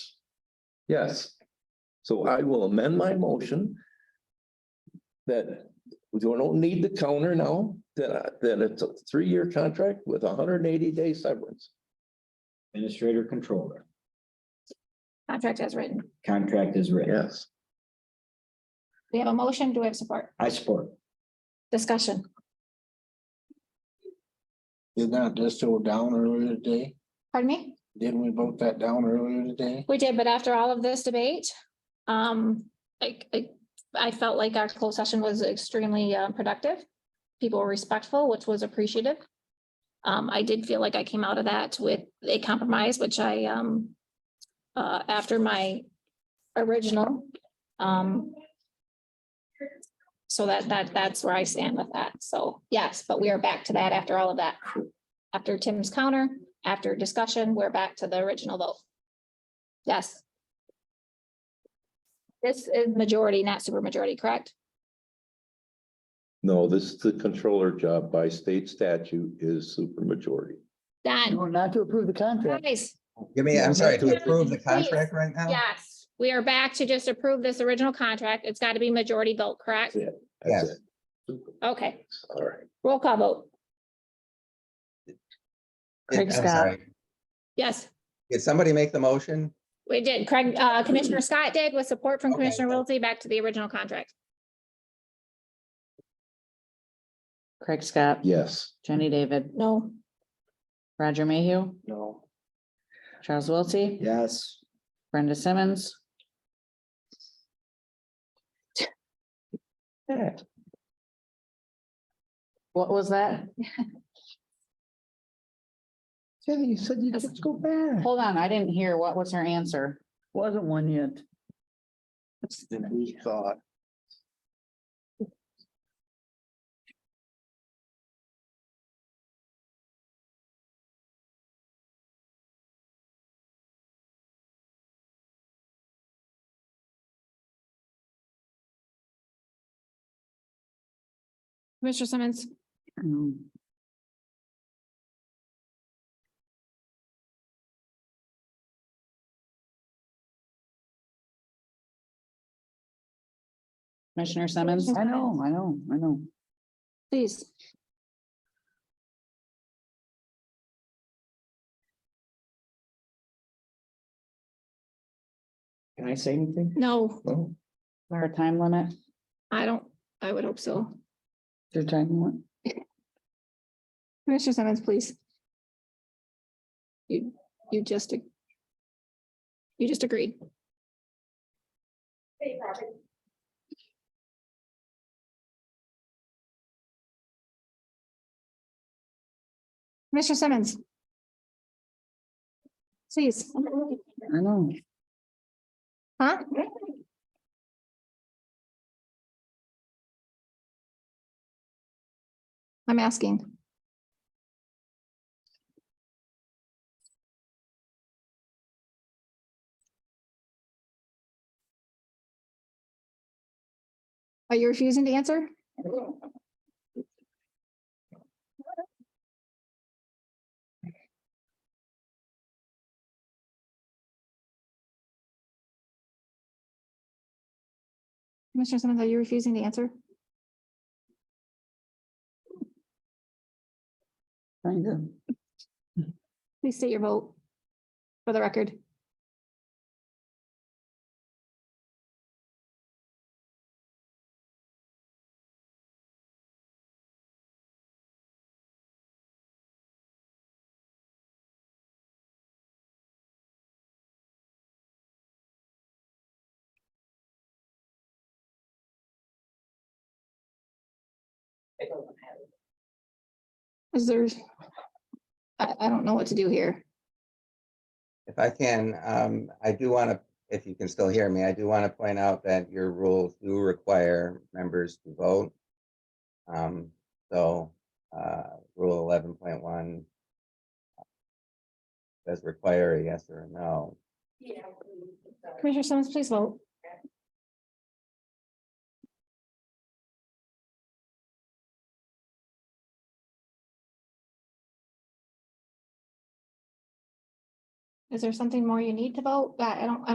Yes. So I will amend my motion. That we don't need the counter now, that, that it's a three-year contract with a hundred and eighty day severance. Administrator controller, Contract as written. contract is written. Yes. We have a motion. Do we have support? I support. Discussion. Did not this go down earlier today? Pardon me? Didn't we vote that down earlier today? We did, but after all of this debate, um, I, I, I felt like our closed session was extremely uh, productive. People were respectful, which was appreciative. Um, I did feel like I came out of that with a compromise, which I, um, uh, after my original, um, so that, that, that's where I stand with that. So yes, but we are back to that after all of that. After Tim's counter, after discussion, we're back to the original vote. Yes. This is majority, not super majority, correct? No, this is the controller job by state statute is supermajority. Done. Not to approve the contract. Guys, Give me, I'm sorry, to approve the contract right now? yes, we are back to just approve this original contract. It's got to be majority vote, correct? Yeah. That's Yes. it. Okay, All right. roll call vote. I'm Craig Scott. sorry. Yes, Did somebody make the motion? we did. Craig, uh, Commissioner Scott did with support from Okay. Commissioner Wiltie back to the original contract. Craig Scott. Yes. Jenny David, No. Roger Mayhew, No. Charles Wiltie. Yes. Brenda Simmons, Yeah. what was that? Jenny, you said you just go back. Hold on, I didn't hear. What was her answer? Wasn't one yet. thought. Commissioner Simmons. Commissioner Simmons? I know, I know, I know. Please. Can I say anything? No, Oh. Our time limit? I don't, I would hope so. Your time limit? Commissioner Simmons, please. You, you just. ag- You just agreed. Commissioner Simmons. Please. I know. Huh? I'm asking. Are you refusing to answer? Commissioner Simmons, are you refusing to answer? Thank you. Please state your vote for the record. Is there? I, I don't know what to do here. If I can, um, I do want to, if you can still hear me, I do want to point out that your rules do require members to vote. Um, so, uh, rule eleven point one does require a yes or a no. Commissioner Simmons, please vote. Is there something more you need to vote? I I don't, I